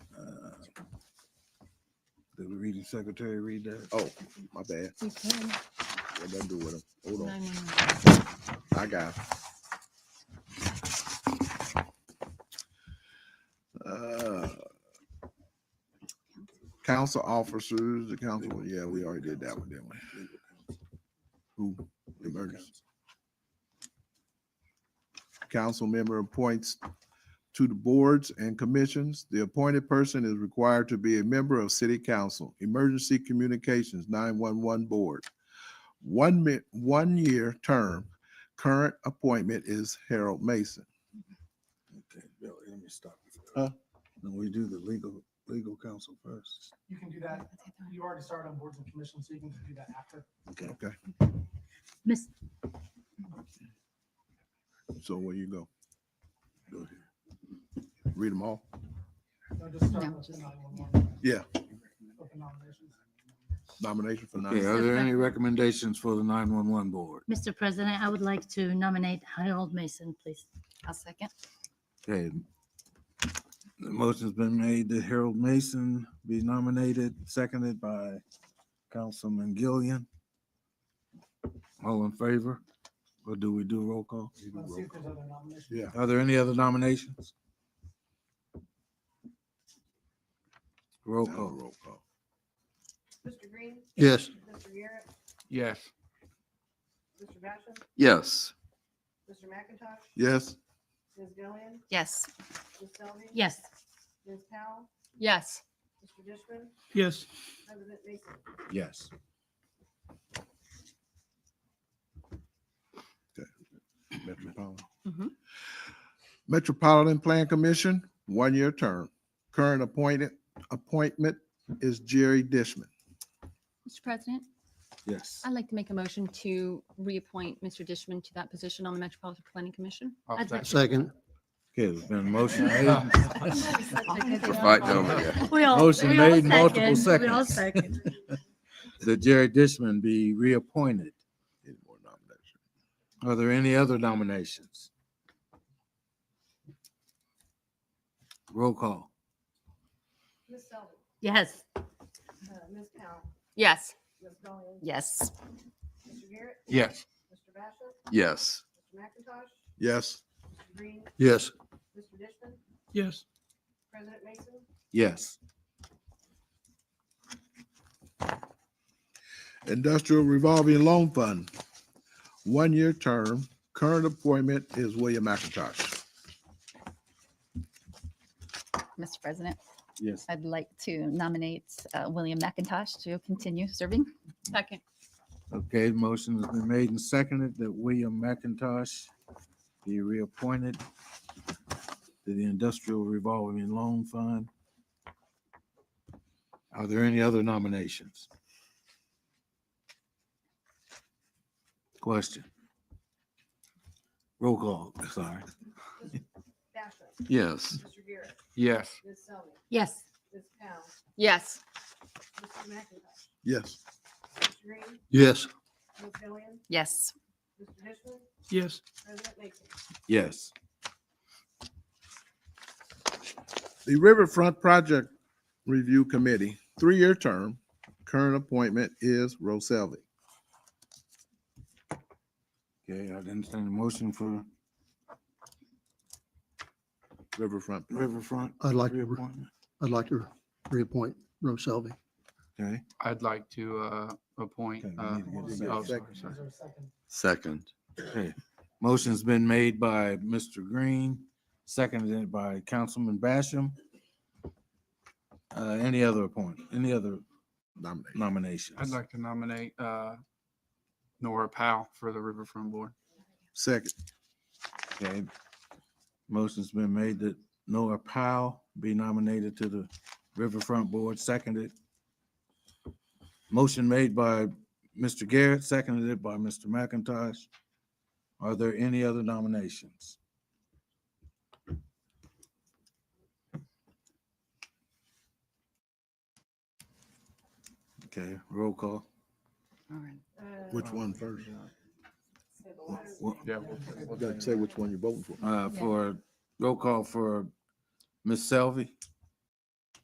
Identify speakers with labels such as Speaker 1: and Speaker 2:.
Speaker 1: Did we read the secretary read that?
Speaker 2: Oh, my bad. What did I do with him? Hold on. I got. it. Uh, Council officers, the council, yeah, we already did that one, didn't we? Who, emergency. Council member appoints to the boards and commissions. The appointed person is required to be a member of city council, emergency communications, nine-one-one board. One mi- one-year term, current appointment is Harold Mason.
Speaker 1: Okay, Bill, let me stop. you there.
Speaker 2: Huh?
Speaker 1: No, we do the legal, legal counsel first.
Speaker 3: You can do that. You already started on boards and commissions, so you can do that after.
Speaker 1: Okay.
Speaker 2: Okay,
Speaker 4: Miss,
Speaker 2: so where you go?
Speaker 1: go ahead.
Speaker 2: Read them all?
Speaker 3: No, just start
Speaker 4: No,
Speaker 3: with the
Speaker 4: just-
Speaker 3: 911.
Speaker 2: Yeah.
Speaker 3: Open nominations.
Speaker 2: Nomination for
Speaker 1: Okay,
Speaker 2: nine.
Speaker 1: are there any recommendations for the nine-one-one board?
Speaker 4: Mr. President, I would like to nominate Harold Mason, please. I'll second.
Speaker 1: Okay. The motion's been made that Harold Mason be nominated, seconded by Councilman Gillian. All in favor? Or do we do a roll call?
Speaker 3: Let's see if there's other nominations.
Speaker 2: Yeah,
Speaker 1: Are there any other nominations? Roll
Speaker 2: now
Speaker 1: call.
Speaker 2: roll call.
Speaker 5: Mr. Green,
Speaker 6: Yes.
Speaker 5: Mr. Garrett,
Speaker 6: Yes.
Speaker 5: Mr. Basham,
Speaker 6: Yes.
Speaker 5: Mr. McIntosh,
Speaker 2: Yes,
Speaker 5: Ms. Gillian,
Speaker 4: Yes.
Speaker 5: Ms. Selby.
Speaker 4: Yes.
Speaker 5: Ms. Powell,
Speaker 4: Yes.
Speaker 5: Mr. Dishman,
Speaker 6: Yes.
Speaker 5: President Mason.
Speaker 1: Yes.
Speaker 2: Metropolitan.
Speaker 4: Mhm.
Speaker 2: Metropolitan Plan Commission, one-year term. Current appointed, appointment is Jerry Dishman.
Speaker 7: Mr. President,
Speaker 1: Yes.
Speaker 7: I'd like to make a motion to reappoint Mr. Dishman to that position on the Metropolitan Planning Commission.
Speaker 4: I'd like-
Speaker 6: Second.
Speaker 1: Okay, there's been a motion made.
Speaker 6: Fight over
Speaker 4: We all-
Speaker 1: Motion
Speaker 4: we all
Speaker 1: made, multiple
Speaker 4: second. We all
Speaker 1: seconds.
Speaker 4: second.
Speaker 1: That Jerry Dishman be reappointed.
Speaker 2: Any more nominations?
Speaker 1: Are there any other nominations? Roll call.
Speaker 5: Ms. Selby,
Speaker 4: Yes.
Speaker 5: uh, Ms. Powell,
Speaker 4: Yes.
Speaker 5: Ms. Gillian,
Speaker 4: Yes.
Speaker 5: Mr. Garrett,
Speaker 6: Yes.
Speaker 5: Mr. Basham,
Speaker 6: Yes.
Speaker 5: Mr. McIntosh,
Speaker 2: Yes,
Speaker 5: Mr. Green,
Speaker 6: Yes.
Speaker 5: Mr. Dishman,
Speaker 6: Yes.
Speaker 5: President Mason,
Speaker 1: Yes.
Speaker 2: Industrial Revolving Loan Fund, one-year term. Current appointment is William McIntosh.
Speaker 8: Mr. President,
Speaker 1: Yes.
Speaker 8: I'd like to nominate uh, William McIntosh to continue serving.
Speaker 7: Second.
Speaker 1: Okay, motion has been made and seconded that William McIntosh be reappointed to the Industrial Revolving Loan Fund. Are there any other nominations? Question. Roll call, sorry.
Speaker 5: Basham,
Speaker 6: Yes.
Speaker 5: Mr. Garrett,
Speaker 6: Yes.
Speaker 5: Ms. Selby,
Speaker 4: Yes.
Speaker 5: Ms. Powell,
Speaker 7: Yes.
Speaker 5: Mr. McIntosh,
Speaker 2: Yes.
Speaker 5: Mr. Green,
Speaker 6: Yes.
Speaker 5: Ms. Gillian,
Speaker 8: Yes.
Speaker 5: Mr. Dishman,
Speaker 6: Yes.
Speaker 5: President Mason.
Speaker 1: Yes.
Speaker 2: The Riverfront Project Review Committee, three-year term. Current appointment is Roselli.
Speaker 1: Okay, I understand the motion for
Speaker 2: Riverfront.
Speaker 1: Riverfront
Speaker 9: I'd like, to re-
Speaker 1: reappointment.
Speaker 9: I'd like to reappoint Rose Selby.
Speaker 1: Okay,
Speaker 10: I'd like to uh, appoint.
Speaker 1: Okay, we
Speaker 10: uh,
Speaker 1: need to get
Speaker 2: this
Speaker 10: oh,
Speaker 2: guy a
Speaker 10: sorry,
Speaker 2: second.
Speaker 3: Is
Speaker 10: sorry.
Speaker 3: there a second?
Speaker 6: Second.
Speaker 1: okay. Motion's been made by Mr. Green, seconded by Councilman Basham. Uh, any other appoint, any other
Speaker 2: Nomination.
Speaker 1: nominations?
Speaker 10: I'd like to nominate uh, Nora Powell for the Riverfront Board.
Speaker 2: Second.
Speaker 1: Okay. Motion's been made that Noah Powell be nominated to the Riverfront Board, seconded. Motion made by Mr. Garrett, seconded by Mr. McIntosh. Are there any other nominations? Okay, roll call.
Speaker 8: All right.
Speaker 5: Uh,
Speaker 2: Which one first?
Speaker 5: so the latter-
Speaker 10: Yeah, we'll-
Speaker 2: You gotta say which one you're voting for.
Speaker 1: Uh, for, roll call for Ms. Selvey.